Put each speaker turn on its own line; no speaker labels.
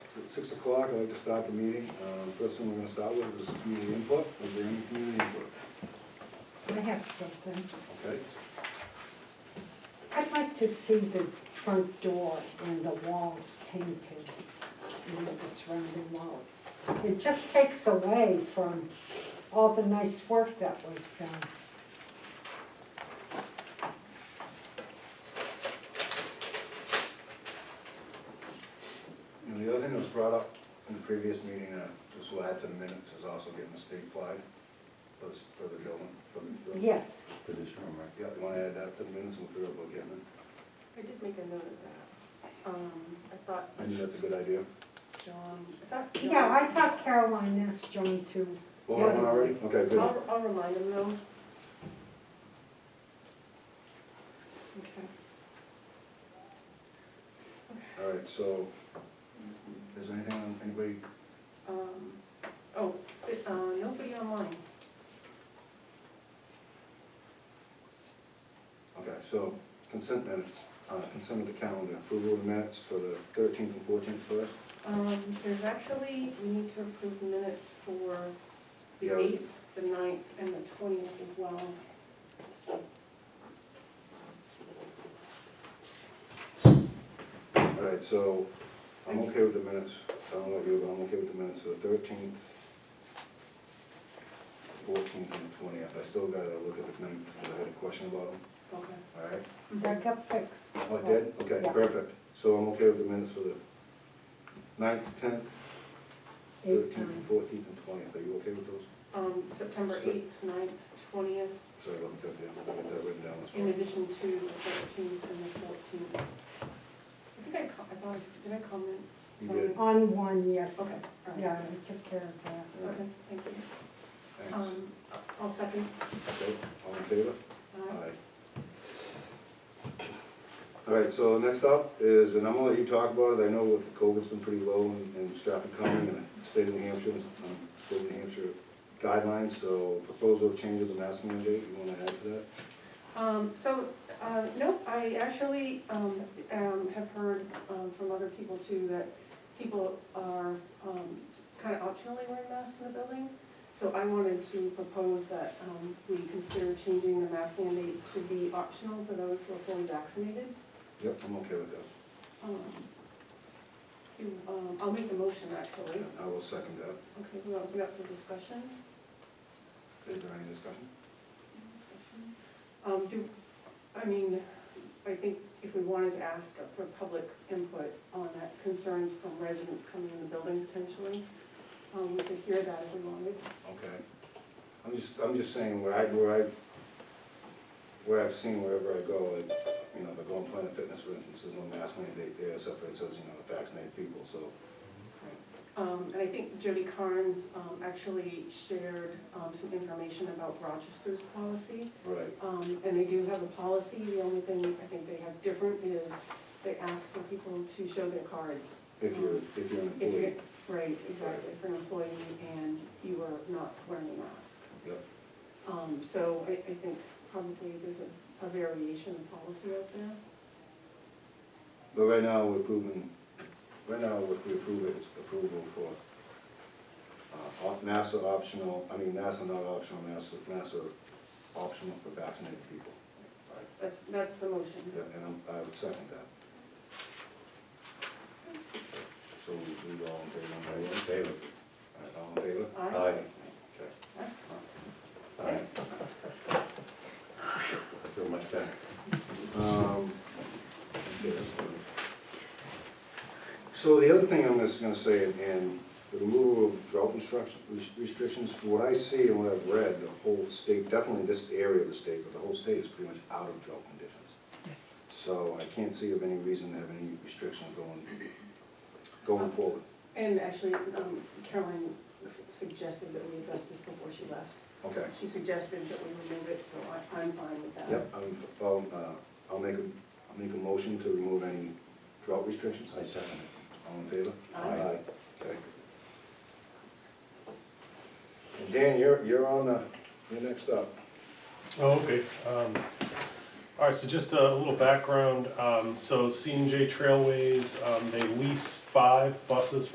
It's six o'clock, I'd like to start the meeting. Uh, First thing we're gonna start with is community input, is there any community input?
I have something.
Okay,
I'd like to see the front door and the walls painted, and the surrounding wall. It just takes away from all the nice work that was done.
and the other thing that was brought up in the previous meeting, uh, just will add to the minutes, is also getting a state flag for this- for the building, for the.
Yes,
For this room, right?
Yeah, you wanna add that to the minutes, we'll figure out about getting it.
I did make a note of that. Um, I thought
I think that's a good idea.
John, I thought. John-
yeah, I thought Caroline asked John to,
Oh, that one already? Okay, good.
I'll, I'll remind him though. Okay.
All right, so, is there anything, on- anybody,
Um, oh, it- uh, nobody online.
okay, so consent minutes, uh, consent of the calendar, approval of the minutes for the thirteenth and fourteenth first?
Um, there's actually, we need to approve minutes for
Yeah.
the eighth, the ninth, and the twentieth as well.
All right, so I'm okay with the minutes. I don't know about you, but I'm okay with the minutes for the thirteenth, fourteenth, and twentieth. I still gotta look at the ninth, because I had a question about them,
Okay.
all right?
that got fixed.
Oh, I did? Okay,
Yeah.
perfect. So I'm okay with the minutes for the ninth, tenth,
Eight
thirteenth,
times.
fourteenth, and twentieth. Are you okay with those?
Um, September
So-
eighth, ninth, twentieth,
Sorry, I looked at the, I got that written down as
in
well.
addition to the thirteenth and the fourteenth. I think I, co- I thought, I- did I comment?
You
something?
did.
On one, yes.
Okay, all right.
Yeah, I took care of that.
All right,
Okay, thank you.
Thanks.
Um, I'll second.
Okay, all in favor?
Aye.
Aye. All right, so next up is, and I'm gonna let you talk about it, I know with COVID's been pretty low in in Stratford County and the state of New Hampshire, um, state of New Hampshire guidelines, so proposal of changes in mask mandate, you wanna add to that?
Um, so, uh, no, I actually, um, um, have heard, um, from other people too, that people are, um, kind of optionally wearing masks in the building. So I wanted to propose that, um, we consider changing the mask mandate to be optional for those who are fully vaccinated.
Yep, I'm okay with that,
Um, you- um, I'll make the motion actually.
I will second that.
Okay, we'll open up for discussion.
Is there any discussion?
Um, do, I mean, I think if we wanted to ask for public input on that, concerns from residents coming in the building potentially, um, we could hear that if we wanted.
Okay. I'm just, I'm just saying where I, where I, where I've seen wherever I go, like, you know, the Golden Planet Fitness, for instance, there's no mask mandate there, except for it says, you know, vaccinate people, so.
Um, and I think Jody Carnes, um, actually shared, um, some information about Rochester's policy.
Right.
Um, and they do have a policy, the only thing I think they have different is they ask for people to show their cards.
If you're, if you're an
If you're,
employee,
right, exactly, for an employee and you are not wearing a mask.
yep,
Um, so I, I think probably there's a, a variation of policy out there.
but right now, we're approving, right now, if we approve it, it's approval for, uh, op- masks are optional, I mean, masks are not optional, masks are, masks are optional for vaccinated people. Right.
That's, that's the motion.
Yeah, and I'm- I would second that. So we we all in favor? on that?
All in favor?
All right, All in favor?
Aye.
Okay.
All right. I feel much better.
Um, okay, that's fine. So the other thing I'm just gonna say, and the removal of drought instruction, restrictions, from what I see and what I've read, the whole state, definitely this area of the state, but the whole state is pretty much out of drought conditions. So I can't see of any reason to have any restriction going, going forward.
And actually, um, Caroline s- suggested that we address this before she left.
Okay.
She suggested that we remove it, so I, I'm fine with that.
Yep, I'm, I'll, uh, I'll make a, I'll make a motion to remove any drought restrictions.
I second it.
All in favor?
Aye.
Okay. And Dan, you're, you're on the, you're next up.
Oh, okay. Um, All right, so just a little background. Um, So C and J Trailways, um, they lease five buses